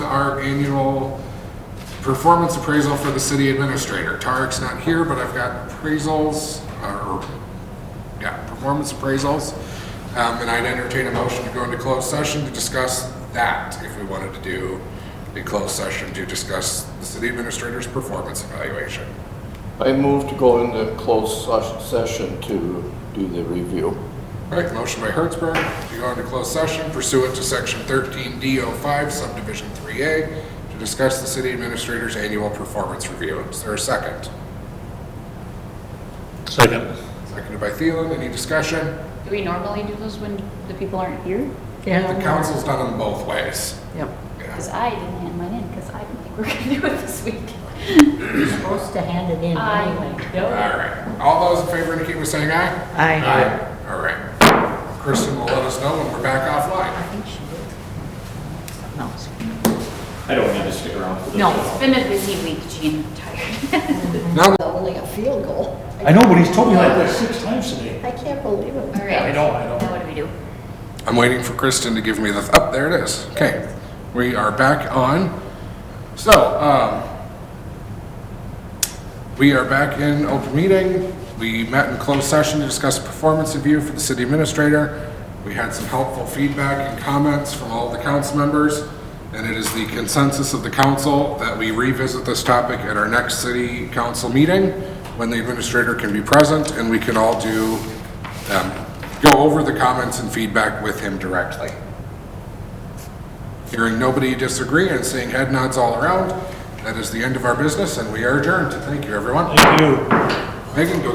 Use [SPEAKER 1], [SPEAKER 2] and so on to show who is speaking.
[SPEAKER 1] our annual performance appraisal for the city administrator. Tarek's not here, but I've got appraisals, uh, or, yeah, performance appraisals. Um, and I'd entertain a motion to go into closed session to discuss that, if we wanted to do a closed session to discuss the city administrator's performance evaluation.
[SPEAKER 2] I move to go into closed ses- session to do the review.
[SPEAKER 1] All right, motion by Hertzberg to go into closed session pursuant to section 13D05 subdivision 3A to discuss the city administrator's annual performance review. Is there a second?
[SPEAKER 3] Second.
[SPEAKER 1] Seconded by Thielen, any discussion?
[SPEAKER 4] Do we normally do those when the people aren't here?
[SPEAKER 1] The council's done them both ways.
[SPEAKER 5] Yep.
[SPEAKER 1] Yeah.
[SPEAKER 4] Because I didn't hand mine in, because I didn't think we were going to do it this week.
[SPEAKER 5] Supposed to hand it in
[SPEAKER 4] I
[SPEAKER 5] anyway.
[SPEAKER 1] All
[SPEAKER 4] know.
[SPEAKER 1] right, all those in favor indicate by saying aye.
[SPEAKER 5] Aye.
[SPEAKER 1] All right. Kristen will let us know when we're back offline.
[SPEAKER 5] I think she did. No, it's-
[SPEAKER 6] I don't need to stick around for this.
[SPEAKER 5] No.
[SPEAKER 4] It's been a busy week, Jean, I'm tired.
[SPEAKER 1] Now,
[SPEAKER 7] Only a field goal.
[SPEAKER 3] I know, but he's told me like that six times today.
[SPEAKER 7] I can't believe it.
[SPEAKER 4] All right.
[SPEAKER 3] I know, I know.
[SPEAKER 4] Now what do we do?
[SPEAKER 1] I'm waiting for Kristen to give me the, up, there it is. Okay, we are back on. So, um, we are back in open meeting. We met in closed session to discuss a performance review for the city administrator. We had some helpful feedback and comments from all the council members, and it is the consensus of the council that we revisit this topic at our next city council meeting when the administrator can be present and we can all do, um, go over the comments and feedback with him directly. Hearing nobody disagree and seeing head nods all around, that is the end of our business, and we are adjourned. Thank you, everyone.
[SPEAKER 3] Thank you.
[SPEAKER 1] Megan, go